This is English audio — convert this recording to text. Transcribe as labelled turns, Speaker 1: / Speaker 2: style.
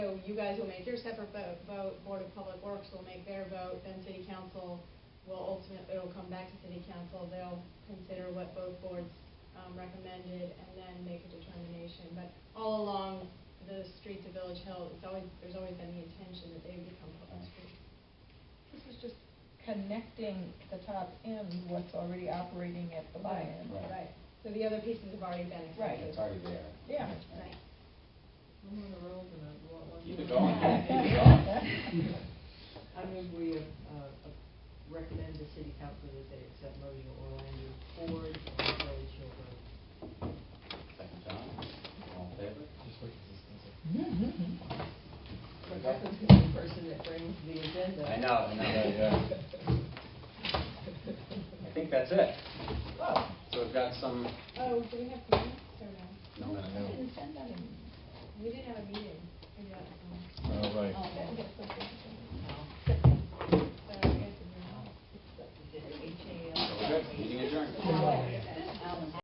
Speaker 1: you guys will make your separate vote, vote, Board of Public Works will make their vote, then City Council will ultimately, it'll come back to City Council, they'll consider what both boards, um, recommended, and then make a determination. But all along the streets of Village Hill, it's always, there's always been the intention that they would become public streets.
Speaker 2: This is just connecting the top end, what's already operating at the buy-in.
Speaker 3: Right.
Speaker 1: So the other pieces have already been
Speaker 2: Right.
Speaker 1: accepted.
Speaker 3: It's already there.
Speaker 2: Yeah.
Speaker 1: Right.
Speaker 4: I'm on the road and I want one.
Speaker 3: Keep it going, keep it
Speaker 2: going.
Speaker 4: I mean, we, uh, uh, recommend the city council that they accept Mojo Orlando Ford on Village Hill Road.
Speaker 3: Second time, all in favor?
Speaker 5: Just wait, 'cause this thing's like-
Speaker 4: What happens to the person that brings the agenda?
Speaker 3: I know, I know, yeah. I think that's it.
Speaker 2: Oh,
Speaker 3: So we've got some,
Speaker 1: Oh, do we have minutes or no?
Speaker 3: no, no, no.
Speaker 2: we didn't send that in.
Speaker 1: We didn't have a meeting. We didn't.
Speaker 4: Oh,
Speaker 3: Oh.